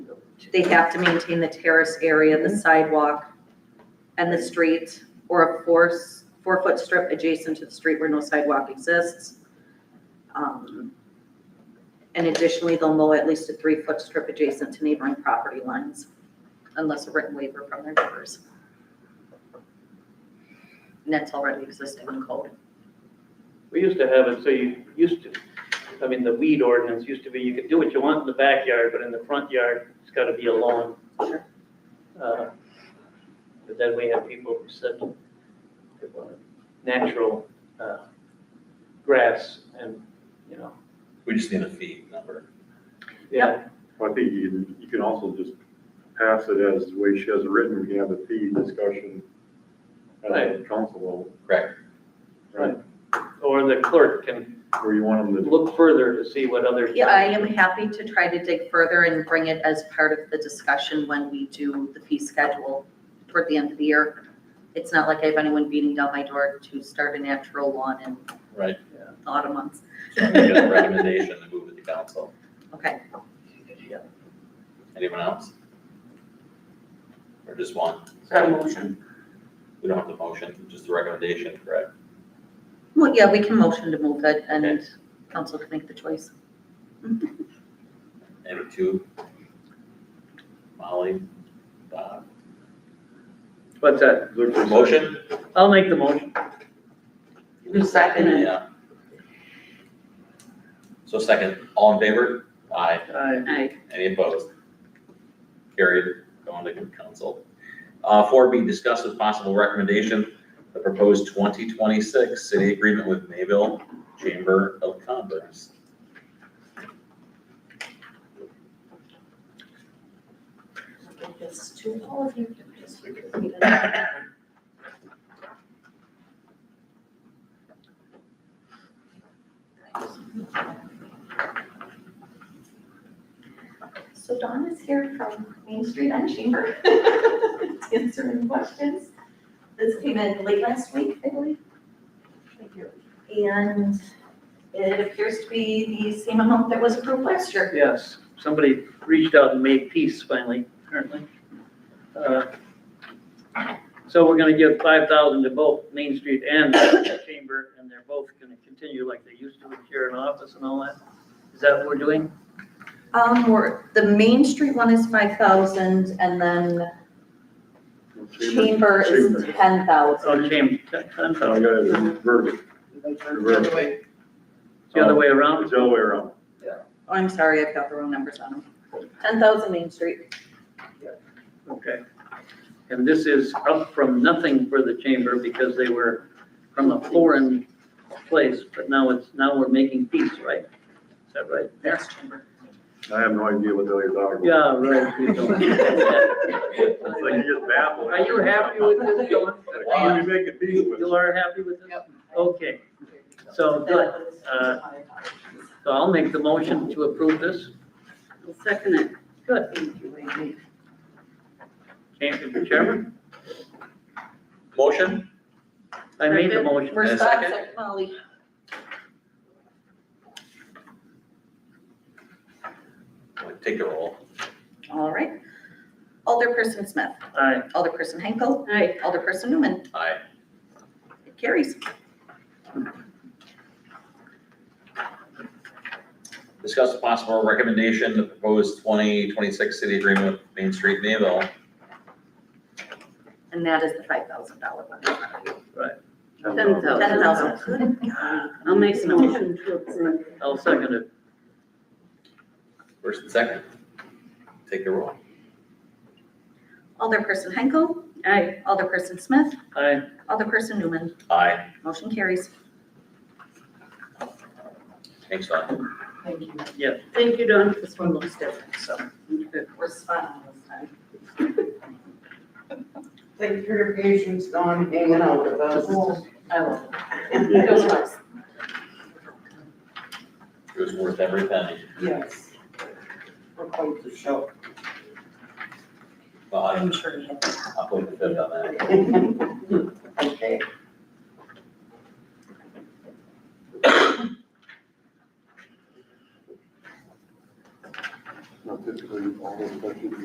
they have to maintain the terrace area, the sidewalk, and the street, or a four, four-foot strip adjacent to the street where no sidewalk exists. Um, And additionally, they'll mow at least a three-foot strip adjacent to neighboring property lines, unless a written waiver from their neighbors. And that's already existing in code. We used to have it, so you used to, I mean, the weed ordinance used to be, you could do what you want in the backyard, but in the front yard, it's gotta be a lawn. Sure. Uh, But then we have people who said they wanted natural, uh, grass and, you know, We just need a fee number. yeah, I think you can, you can also just pass it as the way she has it written, we can have a fee discussion at the council level, Correct. or the clerk can where you want them to. look further to see what other. Yeah, I am happy to try to dig further and bring it as part of the discussion when we do the fee schedule toward the end of the year. It's not like I have anyone beating down my door to start a natural lawn in Right. the autumn months. So I'm making a recommendation to move it to council. Okay, Anyone else? Or just one? Got a motion? We don't have the motion, just the recommendation, correct? well, yeah, we can motion to move it and Okay. council can make the choice. Number two. Molly, Bob. What's that? look for- Motion? I'll make the motion. You second it? Yeah. So second, all in favor? Aye. I, Aye. Any opposed? Carried, going to council. Uh, four B, discuss with possible recommendation, the proposed twenty twenty-six city agreement with Mayville Chamber of Commerce. Give this to all of you. Just read it. So Dawn is here from Main Street and Chamber to answer any questions. This came in late last week, I believe. Thank you. And it appears to be the same amount that was approved last year. yes, somebody reached out and made peace finally, apparently. Uh, So we're gonna give five thousand to both Main Street and the Chamber, and they're both gonna continue like they used to with here in office and all that. Is that what we're doing? Um, we're, the Main Street one is five thousand and then Chamber is Chamber. ten thousand. Oh, Chamber, ten I thousand, got it reversed. Reversed. it's the other way around? It's the other way around. Oh, I'm sorry, I've got the wrong numbers on them. Ten thousand Main Street. Okay. And this is up from nothing for the Chamber because they were from a foreign place, but now it's, now we're making peace, right? Is that right? That's Chamber. I have no idea what the other dog. Yeah, right. you don't. It's like you just babble. Are you happy with this, Dylan? Why do you make a deal You with? you are happy with this? Yep. Okay, so, good. Uh, so I'll make the motion to approve this. Second it. Good. Chamber, Chairman, Motion? I made the motion. We're And a stuck, second? second Molly. Take the roll. All right. Alderperson Smith. Aye. Alderperson Henkel. Aye. Alderperson Newman. Aye. It carries. Discuss the possible recommendation, the proposed twenty twenty-six city agreement with Main Street Mayville. And that is the five thousand dollar one. Ten Ten thousand. I'll make a motion to approve. I'll second it. First and second. Take the roll. Alderperson Henkel. Aye. Alderperson Smith. Aye. Alderperson Newman. Aye. Motion carries. Thanks, Don. Thank you. Thank you, Don. This one looks different, so we're spot on this time. Thank you for your patience on hanging out with us. I will. Yeah. Goes nice. It was worth every penny. Yes. We're quite the show. Well, I'm, I'm sure you have. I'll put the fifth on that. Okay. Not typically all those questions.